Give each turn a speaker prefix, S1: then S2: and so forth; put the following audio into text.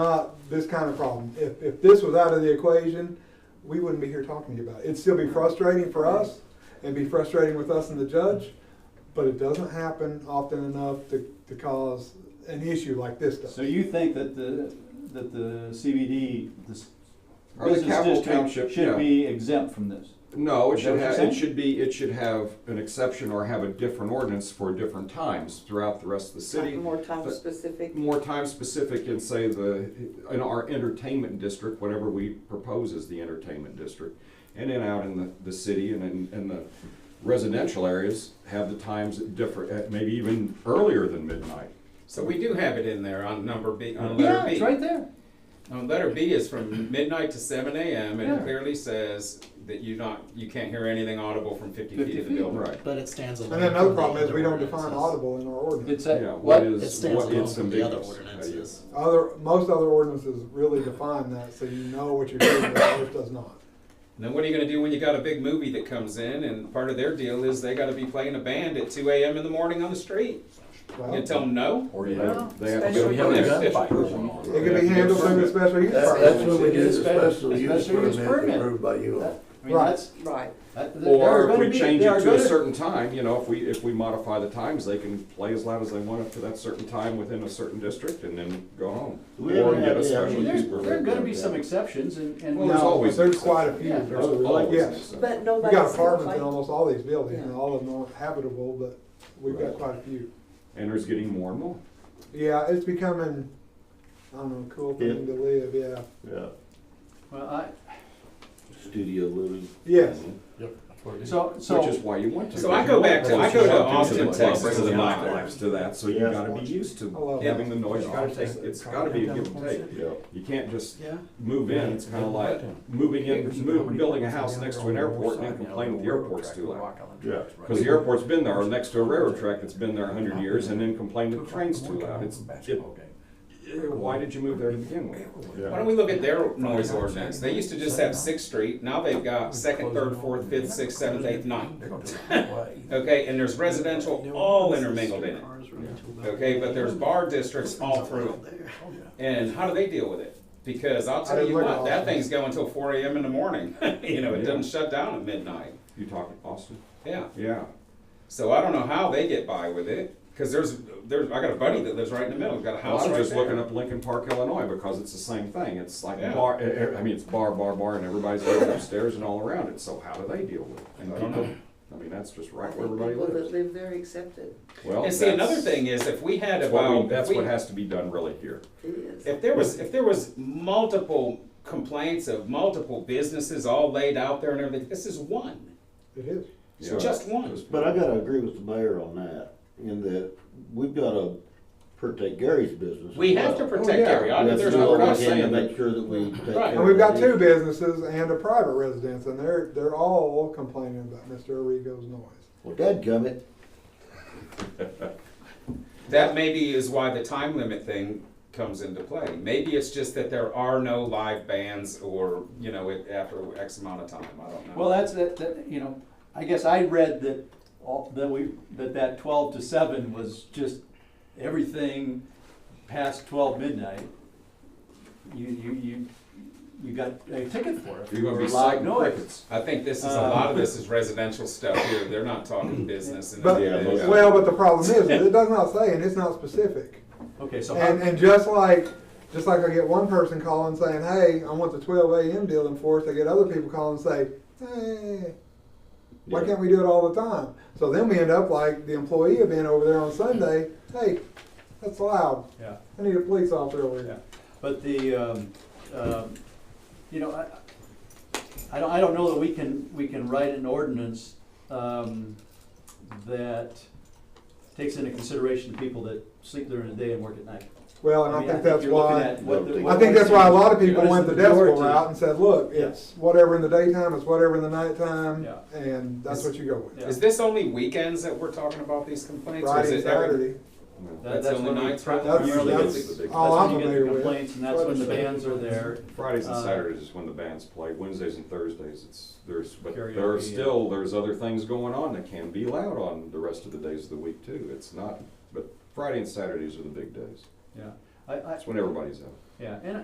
S1: not this kind of problem. If, if this was out of the equation, we wouldn't be here talking to you about it. It'd still be frustrating for us and be frustrating with us and the judge, but it doesn't happen often enough to, to cause an issue like this does.
S2: So you think that the, that the CBD, this
S3: Or the
S2: business
S3: capital
S2: district
S3: township,
S2: should
S3: yeah.
S2: be exempt from this?
S3: No, it
S2: Is that
S3: should
S2: what you're
S3: have,
S2: saying?
S3: it should be, it should have an exception or have a different ordinance for different times throughout the rest of the city.
S4: More time
S3: but-
S4: specific.
S3: More time specific in say the, in our entertainment district, whatever we propose is the entertainment district. And then out in the, the city and in, in the residential areas, have the times different, maybe even earlier than midnight.
S5: So we do have it in there on number B, on
S2: Yeah,
S5: letter B.
S2: it's right there.
S5: On letter B is from midnight to seven AM and
S2: Yeah.
S5: it clearly says that you not, you can't hear anything audible from fifty
S2: 50
S5: feet of the
S2: feet,
S5: building.
S3: Right.
S6: But it stands alone.
S1: And then another
S6: from the
S1: problem is
S6: other
S1: we don't define
S6: ordinances.
S1: audible in our ordinance.
S2: It's
S3: Yeah,
S2: a,
S3: what
S2: what?
S3: is,
S6: It stands
S3: what
S6: alone
S3: is
S6: from the other
S3: ambiguous.
S6: ordinances.
S1: Other, most other ordinances really define that, so you know what you're doing, but ours does not.
S5: And then what are you gonna do when you got a big movie that comes in and part of their deal is they gotta be playing a band at two AM in the morning on the street? You
S1: Well,
S5: gonna
S1: It
S5: tell them no?
S3: Or you have, they have to
S4: Special
S3: go.
S4: We
S7: have a
S5: gunfight
S1: can be handled through the special use
S7: That's,
S1: permit.
S7: that's when we did the special use
S2: Special use
S7: permit
S2: permit.
S7: approved by you all.
S2: I mean,
S1: Right.
S2: that's,
S4: Right.
S2: that, there are
S3: Or if
S2: gonna
S3: we
S2: be,
S3: change
S2: they
S3: it
S2: are
S3: to a
S2: gonna.
S3: certain time, you know, if we, if we modify the times, they can play as loud as they want up to that certain time within a certain district and then go home.
S7: We have
S3: Or
S7: an
S3: get a
S7: idea.
S3: special
S2: There,
S3: use
S2: there are
S3: permit.
S2: gonna be some exceptions and, and.
S3: Well, there's
S1: No,
S3: always
S1: but
S3: an
S1: There's quite a
S3: exception.
S1: few.
S2: Yeah,
S3: There's
S1: There's a lot,
S3: always an
S1: Oh, Yes.
S3: exception.
S4: But
S1: We
S4: nobody's.
S1: got apartments in
S4: complaining.
S1: almost all these buildings, and
S4: Yeah.
S1: all of them aren't habitable, but we've got quite a few.
S3: And there's getting more and more.
S1: Yeah, it's becoming, I don't know, a cool thing to live, yeah.
S7: Yeah.
S2: Well, I,
S7: Studio living.
S1: Yes,
S2: so,
S3: Which is
S2: so,
S3: why you want to.
S5: So I go back to- I go to
S3: You want
S5: Austin,
S3: club,
S5: Texas,
S3: bring
S5: to the
S3: the
S5: mile.
S3: nightlives to that, so you
S7: Yeah.
S3: gotta be used
S1: I
S3: to
S1: love
S3: having
S1: that.
S3: the noise, you gotta take, it's gotta be a give and take.
S7: Yeah.
S3: You can't just
S6: Yeah.
S3: move in, it's kinda like moving in, move, building a house next to an airport and then complaining that the airport's too loud.
S7: Yeah.
S3: Because the airport's been there, or next to a railroad track that's been there a hundred years, and then complain that the train's too loud, it's, it, eh, why did you move there to begin with?
S5: Why don't we look at their noise ordinance? They used to just have Sixth Street, now they've got second, third, fourth, fifth, sixth, seventh, eighth, ninth. Okay, and there's residential all intermingled in it. Okay, but there's bar districts all through it. And how do they deal with it? Because I'll
S1: I
S5: tell
S1: didn't
S5: you
S1: look at
S5: what,
S1: all
S5: that
S1: of
S5: thing's going till four AM in the morning. You know, it
S3: Yeah.
S5: doesn't shut down at midnight.
S3: You talking Austin?
S5: Yeah,
S3: Yeah,
S5: so I don't know how they get by with it, cause there's, there's, I got a buddy that lives right in the middle, got a
S3: well,
S5: house
S3: I
S5: right
S3: was just looking
S5: there.
S3: up Lincoln Park, Illinois, because it's the same thing, it's like
S5: Yeah.
S3: bar, eh, I, I mean, it's bar, bar, bar, and everybody's living upstairs and all around it, so how do they deal with it? And
S5: I don't know.
S3: people- I mean, that's just
S4: I
S3: right
S4: think
S3: where everybody
S4: people that
S3: lives.
S4: live there accept it.
S3: Well,
S5: And see, another
S3: that's-
S5: thing is, if we had
S3: That's what,
S5: about,
S3: we- that's
S5: if we-
S3: what has to be done really here.
S4: It is.
S5: if there was, if there was multiple complaints of multiple businesses all laid out there and everything, this is one.
S1: it is.
S5: It's
S3: Yeah.
S5: just one.
S7: But I gotta agree with the mayor on that, in that we've gotta protect Gary's business. as
S5: We have to
S7: well.
S5: protect
S3: Oh, yeah.
S5: area. I know
S7: That's
S5: there's
S7: what
S5: no
S7: we
S3: not
S7: can
S5: question.
S7: To make sure that we take
S5: Right.
S7: care
S1: And we've got
S7: of
S1: two
S7: these.
S1: businesses and a private residence, and they're, they're all complaining about Mr. Arrigo's noise.
S7: Well, dadgummit,
S5: That maybe is why the time limit thing comes into play. Maybe it's just that there are no live bands or, you know, it- after X amount of time, I don't know.
S2: well, that's, that, that, you know, I guess I read that all, that we, that that twelve to seven was just everything past twelve midnight. You, you, you, you got a ticket for it.
S3: You're gonna be
S2: for loud
S3: citing
S2: noise.
S3: crickets.
S5: I think this is, a
S1: um,
S5: lot of this is residential stuff here, they're not talking business and.
S1: But,
S7: Yeah.
S1: well, but the problem is, it does not say, and it's not specific.
S2: Okay, so. how-
S1: And, and just like, just like I get one person calling saying, hey, I want the twelve AM deal enforced, I get other people calling and say, hey, why
S3: Yeah.
S1: can't we do it all the time? So then we end up like the employee event over there on Sunday, hey, that's loud,
S2: Yeah.
S1: I need a police officer over
S2: Yeah.
S1: here.
S2: But the, um, um, you know, I, I don't, I don't know that we can, we can write an ordinance, um, that takes into consideration people that sleep during the day and work at night.
S1: Well, and I
S2: mean,
S1: think that's
S2: you're looking
S1: why,
S2: at what the-
S7: I
S1: I
S2: what
S1: think
S2: is
S1: that's why a lot of
S2: the-
S1: people
S2: what is
S1: went the decibel
S2: majority?
S1: route and said, look,
S2: Yeah.
S1: it's whatever in the daytime, it's whatever in the nighttime,
S2: Yeah.
S1: and that's what you go with.
S2: Yeah.
S5: Is this only weekends that we're talking about these complaints? or is
S1: Friday,
S5: it every-
S1: Saturday,
S2: That-
S5: That's the
S2: when
S5: only
S2: we
S5: nights
S2: pri-
S5: right?
S1: That's-
S2: primarily
S1: that's
S2: get the-
S1: all
S2: that's
S1: I'm
S2: when you get the
S1: familiar with.
S2: Complaints, and that's when the bands are there.
S3: Fridays and
S2: Uh,
S3: Saturdays is when the bands play, Wednesdays and Thursdays, it's, there's, but there are
S2: Karaoke, yeah.
S3: still, there's other things going on that can be loud on the rest of the days of the week too. It's not, but Friday and Saturdays are the big days.
S2: Yeah,
S3: I, I,
S2: That's when everybody's out.
S3: yeah, and